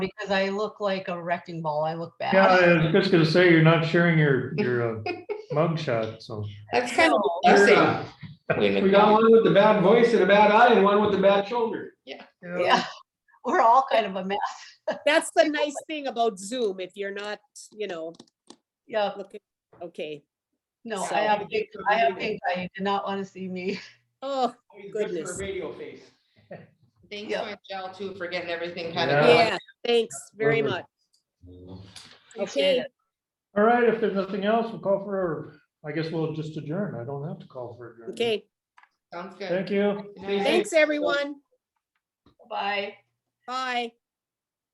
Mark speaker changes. Speaker 1: because I look like a wrecking ball. I look
Speaker 2: Yeah,
Speaker 1: bad.
Speaker 2: I was just gonna say, you're not sharing your, your uh, mug shot, so.
Speaker 3: That's kind of
Speaker 1: So-
Speaker 3: I
Speaker 4: You're,
Speaker 3: see.
Speaker 4: uh,
Speaker 5: Women.
Speaker 4: We got one with the bad voice and a bad eye and one with the bad shoulder.
Speaker 1: Yeah, we're all kind of a mess.
Speaker 6: That's the nice thing about Zoom, if you're not, you know,
Speaker 1: Yeah,
Speaker 6: looking, okay.
Speaker 1: no,
Speaker 6: So-
Speaker 1: I have big, I have big, I do not want to see me.
Speaker 6: Oh,
Speaker 4: Always good for a
Speaker 6: Goodness.
Speaker 4: Radio face.
Speaker 3: Thanks
Speaker 1: Yeah.
Speaker 3: so much, Al, too, for getting everything kind
Speaker 2: Yeah.
Speaker 3: of.
Speaker 6: yeah, thanks very
Speaker 2: Perfect.
Speaker 6: much. Okay,
Speaker 2: All right, if there's nothing else, we'll call for, I guess we'll just adjourn. I don't have to call for adjourn.
Speaker 6: okay.
Speaker 3: Sounds good.
Speaker 2: Thank you.
Speaker 4: Stay safe.
Speaker 6: Thanks, everyone.
Speaker 1: Bye.
Speaker 6: Bye.